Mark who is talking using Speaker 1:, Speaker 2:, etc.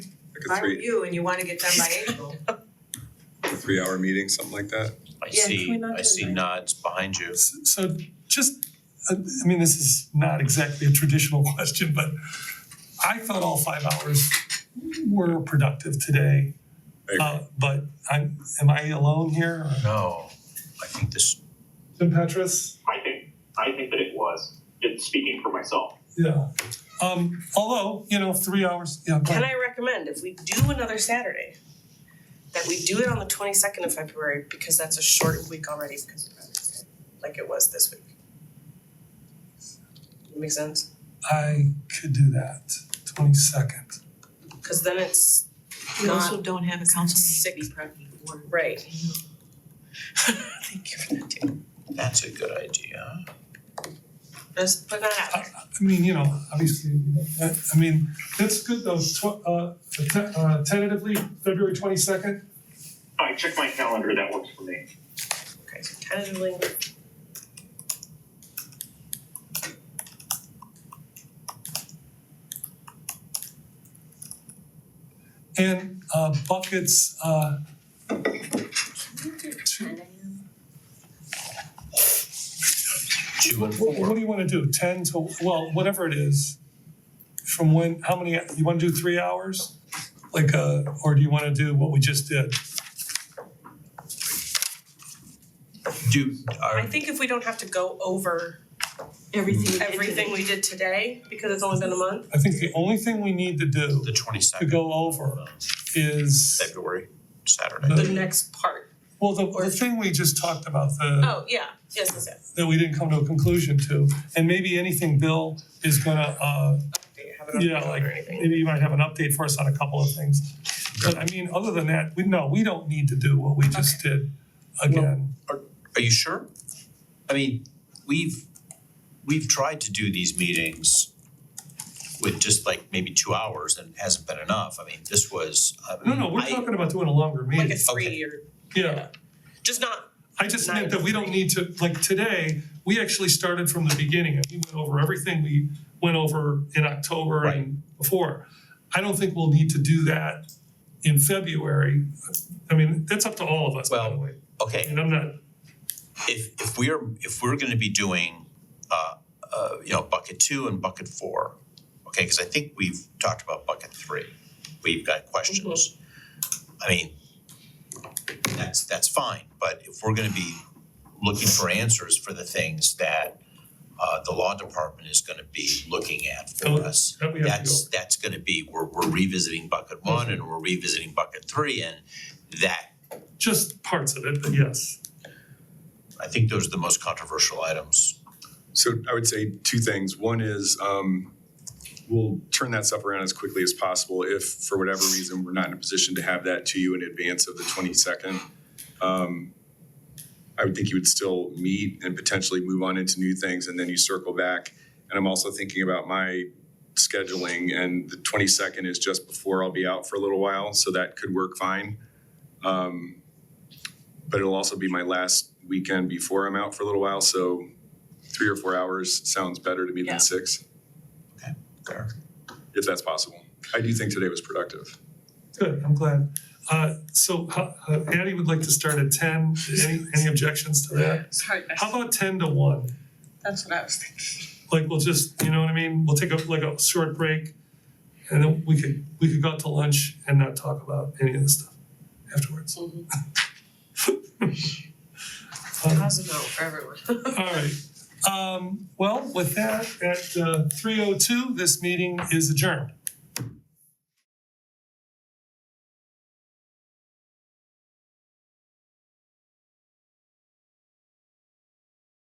Speaker 1: a
Speaker 2: aren't
Speaker 1: three,
Speaker 2: you and you wanna get done by April.
Speaker 1: three hour meeting, something like that?
Speaker 3: I
Speaker 2: Yeah, can we
Speaker 3: see,
Speaker 2: not
Speaker 3: I
Speaker 2: do
Speaker 3: see
Speaker 2: that?
Speaker 3: nods behind you.
Speaker 4: S- So just, I I mean, this is not exactly a traditional question, but I thought all five hours were productive today.
Speaker 1: I agree.
Speaker 4: Uh, But I'm, am I alone here?
Speaker 3: No, I think this,
Speaker 4: Tim Petrus?
Speaker 5: I think I think that it was. It's speaking for myself.
Speaker 4: Yeah. Um, although, you know, three hours, yeah,
Speaker 6: Can
Speaker 4: but
Speaker 6: I recommend if we do another Saturday, that we do it on the twenty second of February because that's a shortened week already because of President's Day, like it was this week. Make sense?
Speaker 4: I could do that, twenty-second.
Speaker 6: Cause then it's
Speaker 2: We
Speaker 6: Not
Speaker 2: also don't have a council meeting to
Speaker 6: six-
Speaker 2: be prepped before.
Speaker 6: right. Thank you for that, too.
Speaker 3: that's a good idea.
Speaker 6: Just put that out
Speaker 4: I,
Speaker 6: there.
Speaker 4: I mean, you know, obviously, you know, I, I mean, that's good though, tw- uh, te- uh, tentatively, February twenty-second?
Speaker 5: I check my calendar. That works for me.
Speaker 6: Okay, so tentatively.
Speaker 4: And, uh, buckets, uh,
Speaker 3: Two and
Speaker 4: What, what
Speaker 3: four.
Speaker 4: do you wanna do, ten to, well, whatever it is, from when, how many, you wanna do three hours? Like, uh, or do you wanna do what we just did?
Speaker 3: Do,
Speaker 6: I
Speaker 3: are,
Speaker 6: think if we don't have to go over
Speaker 2: Everything we did
Speaker 6: everything
Speaker 2: today.
Speaker 6: we did today, because it's only been a month,
Speaker 4: I think the only thing we need to do
Speaker 3: the
Speaker 4: to
Speaker 3: twenty-second, um,
Speaker 4: go over is,
Speaker 3: February,
Speaker 4: No.
Speaker 3: Saturday.
Speaker 6: the next part.
Speaker 4: well, the, the thing we just talked about, the,
Speaker 6: Oh, yeah, yes, yes, yes.
Speaker 4: that we didn't come to a conclusion to, and maybe anything Bill is gonna, uh,
Speaker 6: Do you have it on
Speaker 4: Yeah,
Speaker 6: the
Speaker 4: like,
Speaker 6: calendar or anything?
Speaker 4: maybe you might have an update for us on a couple of things. But I mean, other than that, we, no, we don't need to do what we just did again.
Speaker 3: Are you sure? I mean, we've, we've tried to do these meetings with just like maybe two hours and it hasn't been enough. I mean, this was, I
Speaker 4: No, no, we're
Speaker 3: I-
Speaker 4: talking about doing a longer meeting.
Speaker 6: Like a three or,
Speaker 4: Yeah,
Speaker 6: just not
Speaker 4: I just meant that we don't need to, like today, we actually started from the beginning and we went over everything we went over in October and before. I don't think we'll need to do that in February. I mean, that's up to all of us, by the
Speaker 3: Well-
Speaker 4: way.
Speaker 3: Okay,
Speaker 4: And I'm not,
Speaker 3: if if we're if we're gonna be doing uh uh you know bucket two and bucket four, okay, cause I think we've talked about bucket three. We've got questions.
Speaker 4: Mm-hmm.
Speaker 3: I mean, that's that's fine, but if we're gonna be looking for answers for the things that uh the law department is gonna be looking at
Speaker 4: Oh,
Speaker 3: for us,
Speaker 4: that we have to
Speaker 3: that's that's gonna be, we're we're revisiting bucket one and we're revisiting bucket three and that
Speaker 4: just parts of it, but yes.
Speaker 3: I think those are the most controversial items.
Speaker 1: So I would say two things. One is, um, we'll turn that stuff around as quickly as possible if, for whatever reason, we're not in a position to have that to you in advance of the twenty-second. Um, I would think you would still meet and potentially move on into new things and then you circle back. And I'm also thinking about my scheduling and the twenty-second is just before I'll be out for a little while, so that could work fine. Um, but it'll also be my last weekend before I'm out for a little while, so three or four hours sounds better to me
Speaker 6: Yeah.
Speaker 1: than six,
Speaker 3: Fair.
Speaker 1: if that's possible. I do think today was productive.
Speaker 4: Good, I'm glad. Uh, so, uh, uh, Addie would like to start at ten, any, any objections to that?
Speaker 6: Sorry,
Speaker 4: How about ten to one?
Speaker 6: that's what I was thinking.
Speaker 4: Like, we'll just, you know what I mean, we'll take a, like a short break, and then we could, we could go out to lunch and not talk about any of this stuff afterwards. Um,
Speaker 6: How's it for everyone?
Speaker 4: All right, um, well, with that, at, uh, three oh two, this meeting is adjourned.